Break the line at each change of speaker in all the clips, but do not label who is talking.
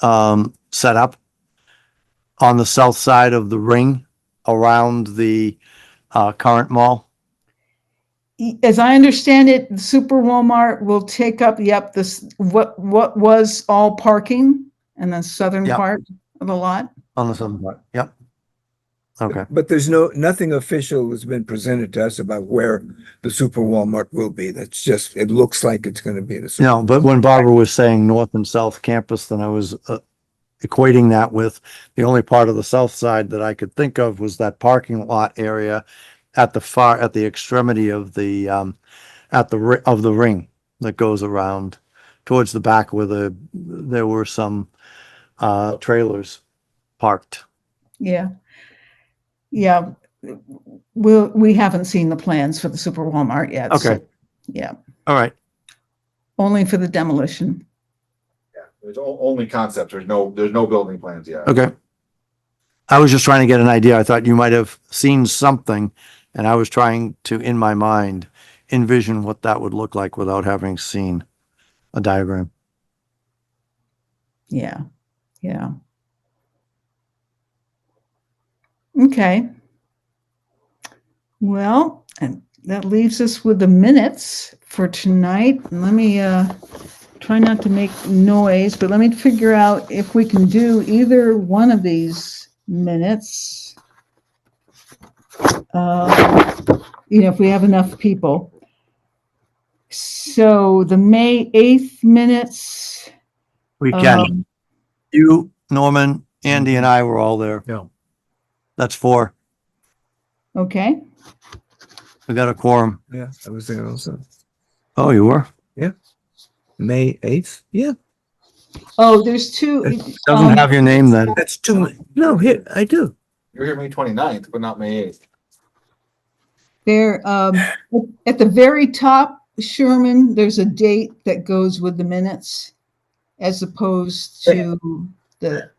um, set up on the south side of the ring around the, uh, current mall.
E, as I understand it, Super Walmart will take up, yep, this, what, what was all parking and the southern
Yep.
part of the lot?
On the southern part, yep. Okay,
But there's no, nothing official has been presented to us about where the super Walmart will be. That's just, it looks like it's gonna be the. super-
no, but when Barbara was saying north and south campus, then I was uh, equating that with the only part of the south side that I could think of was that parking lot area at the far, at the extremity of the, um, at the, ri- of the ring that goes around towards the back where the, there were some, uh, trailers parked.
Yeah. Yeah, we'll, we haven't seen the plans for the Super Walmart yet. so-
Okay.
Yeah,
All right,
only for the demolition.
There's o- only concepts. There's no, there's no building plans yet.
okay. I was just trying to get an idea. I thought you might have seen something and I was trying to, in my mind, envision what that would look like without having seen a diagram.
Yeah, yeah. Okay. Well, and that leaves us with the minutes for tonight. Let me uh try not to make noise, but let me figure out if we can do either one of these minutes. Uh, You know, if we have enough people. So the May 8th minutes.
We can.
um,
You, Norman, Andy and I were all there.
Yeah.
That's four.
Okay.
We got a quorum.
Yeah, I was there also.
Oh, you were?
May eighth? Yeah,
Oh, there's two.
It
um,
Doesn't have your name then.
that's two. No, here, I do.
You're here May 29th, but not May eighth.
There, um, at the very top, Sherman, there's a date that goes with the minutes as opposed to the,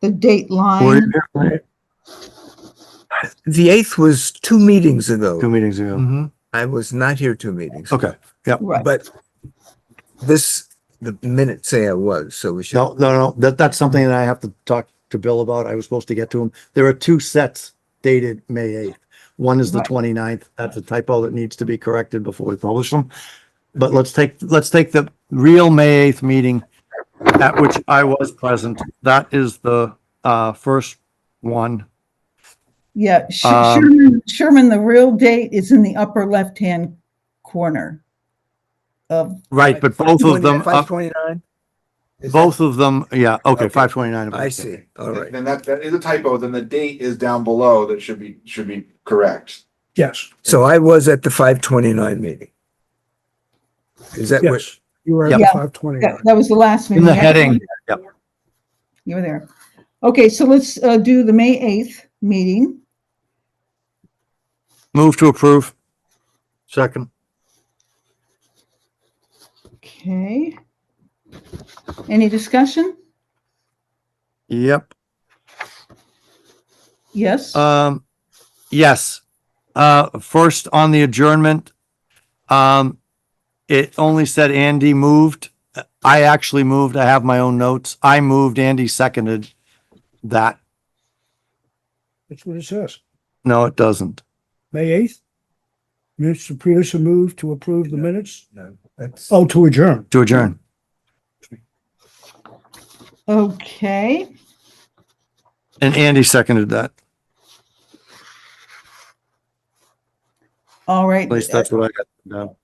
the date
Were you
line.
here for
The eighth was two meetings ago.
Two meetings ago.
Mhm.
I was not here two meetings.
Okay.
Right.
But this, the minutes say I was, so we should.
No, no, no, that, that's something that I have to talk to Bill about. I was supposed to get to him. There are two sets dated May eighth. One is the
Right.
29th. That's a typo that needs to be corrected before we publish them. But let's take, let's take the real May eighth meeting at which I was present. That is the, uh, first one.
Yeah, Sh-
um,
Sherman, Sherman, the real date is in the upper left-hand corner of,
Right, but both of them,
Five
up-
twenty-nine?
both of them, yeah, okay,
Okay.
five twenty-nine.
I see, all right.
Then that, that is a typo. Then the date is down below that should be, should be correct.
Yes,
So I was at the five twenty-nine meeting. Is that what?
yes. You were
Yep.
at five twenty.
that that was the last.
In the
meeting.
heading,
You were there. Okay, so let's, uh, do the May 8th meeting.
move to approve. Second.
Okay. Any discussion?
Yep.
Yes?
Um, yes. Uh, first on the adjournment, um, it only said Andy moved. I actually moved. I have my own notes. I moved. Andy seconded that.
That's what it says.
No, it doesn't.
May eighth. Mr. Producer moved to approve the minutes.
No, that's.
Oh, to adjourn.
To adjourn.
Okay,
And Andy seconded that.
all right. uh,
At least that's what I got. down.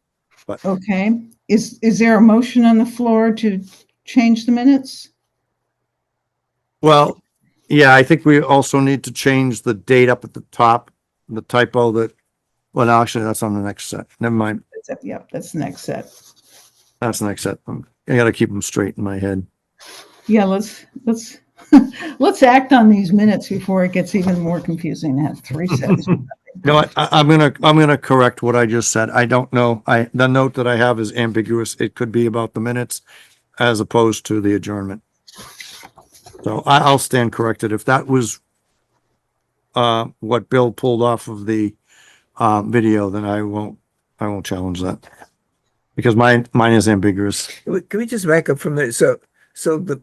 Okay, is, is there a motion on the floor to change the minutes?
Well, yeah, I think we also need to change the date up at the top, the typo that, well, no, actually, that's on the next set. Never mind.
That's it, Yep, that's the next set.
That's the next set. I gotta keep them straight in my head.
Yeah, let's, let's, let's act on these minutes before it gets even more confusing to have three sets.
No, I, I- I'm gonna, I'm gonna correct what I just said. I don't know. I, the note that I have is ambiguous. It could be about the minutes as opposed to the adjournment. So I, I'll stand corrected. If that was uh, what Bill pulled off of the um, video, then I won't, I won't challenge that. Because mine, mine is ambiguous.
Can we just back up from there? So, so the,